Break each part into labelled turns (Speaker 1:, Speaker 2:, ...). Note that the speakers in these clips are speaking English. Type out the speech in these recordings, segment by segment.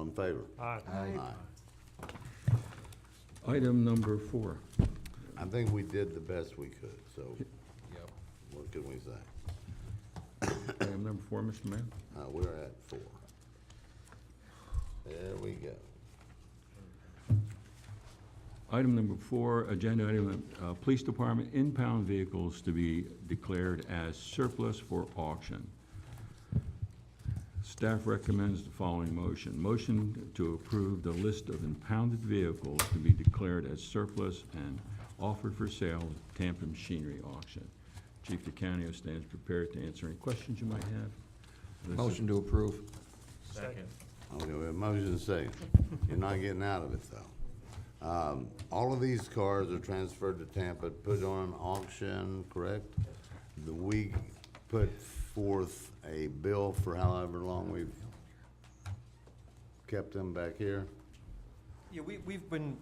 Speaker 1: in favor?
Speaker 2: Aye.
Speaker 3: Item number four.
Speaker 1: I think we did the best we could, so
Speaker 4: Yep.
Speaker 1: what can we say?
Speaker 3: Item number four, Mr. Mayor.
Speaker 1: Uh, we're at four. There we go.
Speaker 3: Item number four, agenda item, uh, Police Department impound vehicles to be declared as surplus for auction. Staff recommends the following motion. Motion to approve the list of impounded vehicles to be declared as surplus and offered for sale at Tampa Machinery Auction. Chief DeCanio stands prepared to answer any questions you might have. This is-
Speaker 4: Motion to approve.
Speaker 2: Second.
Speaker 1: Okay, we have motion and second. You're not getting out of it, though. Um, all of these cars are transferred to Tampa, put on auction, correct? The we put forth a bill for however long we've kept them back here.
Speaker 5: Yeah, we, we've been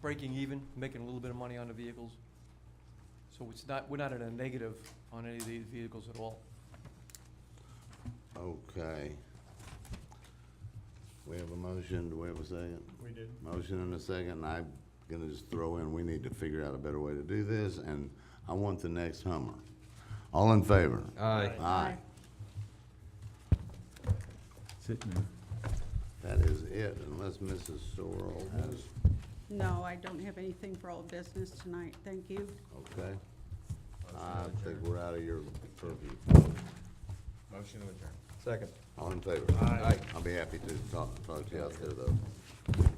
Speaker 5: breaking even, making a little bit of money on the vehicles. So it's not, we're not in a negative on any of these vehicles at all.
Speaker 1: Okay. We have a motion, do we have a second?
Speaker 2: We did.
Speaker 1: Motion and a second, and I'm gonna just throw in, we need to figure out a better way to do this, and I want the next Hummer. All in favor?
Speaker 4: Aye.
Speaker 1: Aye.
Speaker 3: That's it, Mayor.
Speaker 1: That is it, unless Mrs. Sorrell has,
Speaker 6: No, I don't have anything for old business tonight, thank you.
Speaker 1: okay? I think we're out of your purview.
Speaker 4: Motion to adjourn. Second.
Speaker 1: All in favor?
Speaker 2: Aye.
Speaker 1: I'll be happy to talk, talk to you out there, though.